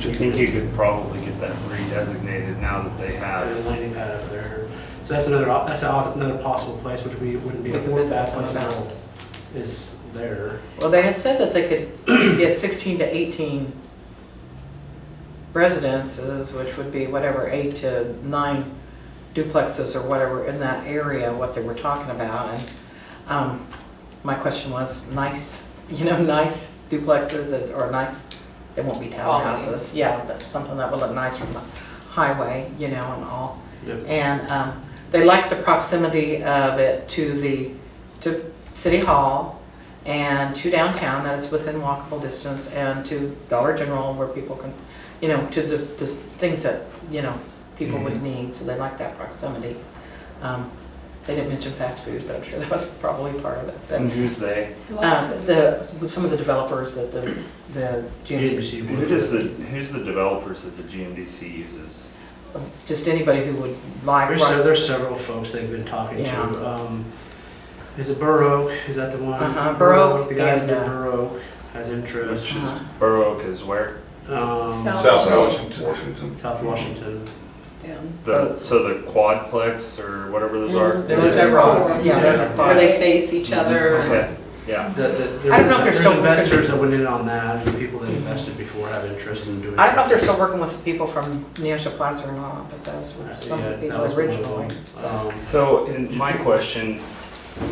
I think you could probably get that redesignated now that they There's have. a landing pad up there. So that's another, op- that's al- another possible place, which we wouldn't be We able could to visit that that place place now, is there. Well, they had said that they could get 16 to 18 residences, which would be whatever, eight to nine duplexes or whatever in that area, what they were talking about. And um, my question was, nice, you know, nice duplexes is- or nice, they won't be townhouses. Yeah, but something that would look nice from the highway, you know, and all. Yep. And um, they liked the proximity of it to the, to City Hall and to downtown, that it's within walkable distance, and to Dollar General where people can, you know, to the, the things that, you know, people would Mm-hmm. need, so they like that proximity. Um, They didn't mention fast food, but I'm sure that was probably part of it. but, And who's they? Mm-hmm. um, The, with some of the developers that the, the GMC, Who does the, who's the developers that the GMDC uses? just anybody who would like. There's, se- there's several folks they've been talking to. Yeah. Um, Is it Burr Oak? Is that the one? Uh-huh, Burr Oak The guy in and, uh, Burr Oak has interest. Which is, Uh-huh. Borough Oak is where? Um, South. South Washington. South Washington. Down. The, so the quadplex or whatever those are? There's There's several. several, yeah, Yeah. there's Where they parts. face each other. Mm-hmm. Okay, yeah. The- the- I don't know if they're there's still- investors that went in on that, and people that invested before have interest in doing. I don't know if they're something. still working with the people from Neosha Plaza or not, but those were some Yeah, of that the people was one of them. originally. Um, So, in my question,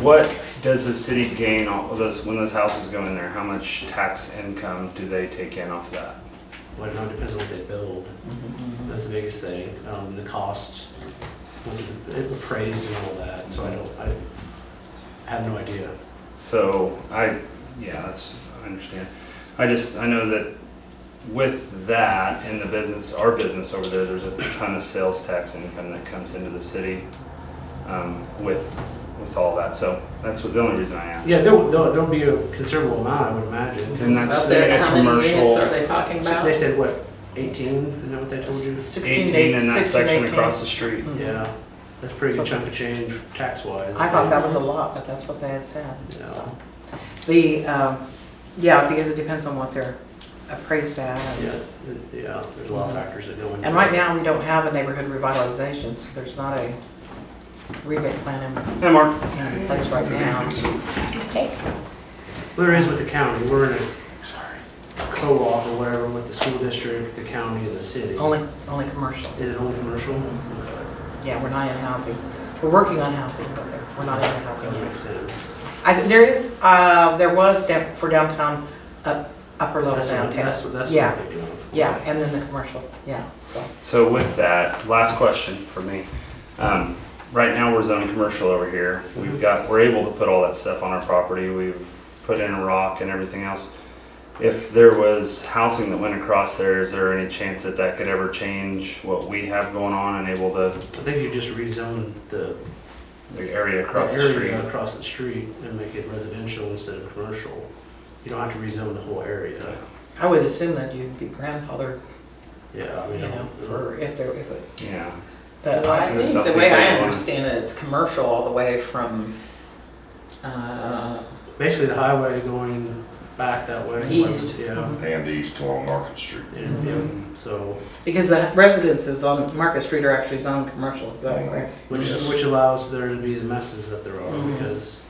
what does the city gain all of those, when those houses go in there, how much tax income do they take in off that? Well, no, it depends on what they build. That's the biggest thing, um, the cost, was it appraised and all that, so I don't, I have no idea. So, I, yeah, that's, I understand. I just, I know that with that and the business, our business over there, there's a ton of sales tax income that comes into the city um, with, with all that. So, that's what, the only reason I asked. Yeah, there will, there'll there'll be a considerable amount, I would imagine. 'cause And that's- Out there, Yeah, how many units commercial. are they talking so about? They said, what, eighteen, is that what they told you? 16 18 in to that 16 section to 18. across the street. Mhm. Yeah, that's a pretty good chunk of change tax-wise. I thought that was a lot, but that's what they had said. Yeah. so. The, um, yeah, because it depends on what they're appraised at. Yeah, yeah, there's a lot of factors that go into. And right it. now, we don't have a neighborhood revitalization, so there's not a rebate plan in- Hey, Mark. in place right now. Okay. There is with the county, we're in a, sorry, co-op or whatever with the school district, the county, and the city. Only, only commercial. Is it only commercial? Okay. Yeah, we're not in housing. We're working on housing, but we're not in housing That yet. makes sense. I, think there is, uh, there was down- for downtown, up- upper level That's what, downtown. that's what, that's what Yeah. I'm thinking of. Yeah, and then the commercial, yeah, so. So with that, last question for me. Um, right now we're zone commercial over here. We've got, we're able to put all that stuff on our property. We've put in a rock and everything else. If there was housing that went across there, is there any chance that that could ever change what we have going on and able to, I think you just rezone the the area across the street? area across the street and make it residential instead of commercial. You don't have to rezone the whole area. I would assume that you'd be grandfathered, Yeah, I you mean, know, for if there, if it, Yeah. but Well, I I, There's think the something way going I on. understand it, it's commercial all the way from, uh, basically the highway going back that way. East. Mm-hmm. Yeah, And east along Market Street. and, yeah, so, because the residences on Market Street are actually zoned commercial, is that correct? which, Yes. which allows there to be the messes that there are Mm-hmm. Mhm. because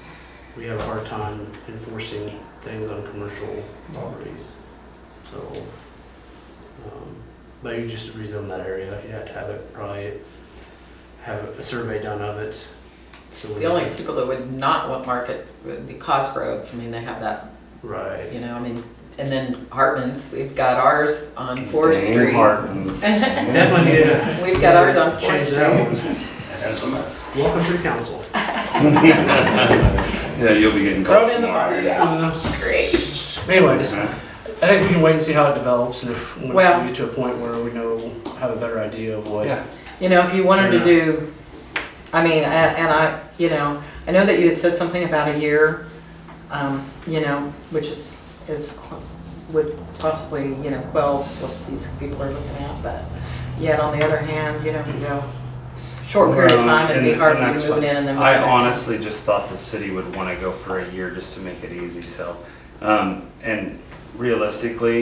we have a hard time enforcing things on commercial properties. So, um, but you just rezone that area, you'd have to have it probably, have a survey done of it. So we- the only people that would not want market would be Cosgrove's. I mean, they have that, Right. you know, I mean, and then Hartman's, we've got ours on Fourth Dang Street. Martins. Definitely need to We've got ours on Fourth change Street. that one. Welcome to the council. Yeah, you'll be getting Throw it calls in the fire, tomorrow. yeah. Great. Anyway, just, Uh-huh. I think we can wait and see how it develops and if, once Well- we get to a point where we know, have a better idea of what. Yeah. You know, if you wanted to Yeah. do, I mean, a- and I, you know, I know that you had said something about a year, um, you know, which is, is, would possibly, you know, quell what these people are looking at, but yet on the other hand, you know, if you go short period of time, it'd be And- hard and for you that's moving fine. in and then. I moving out. honestly just thought the city would want to go for a year just to make it easy, so, um, and realistically,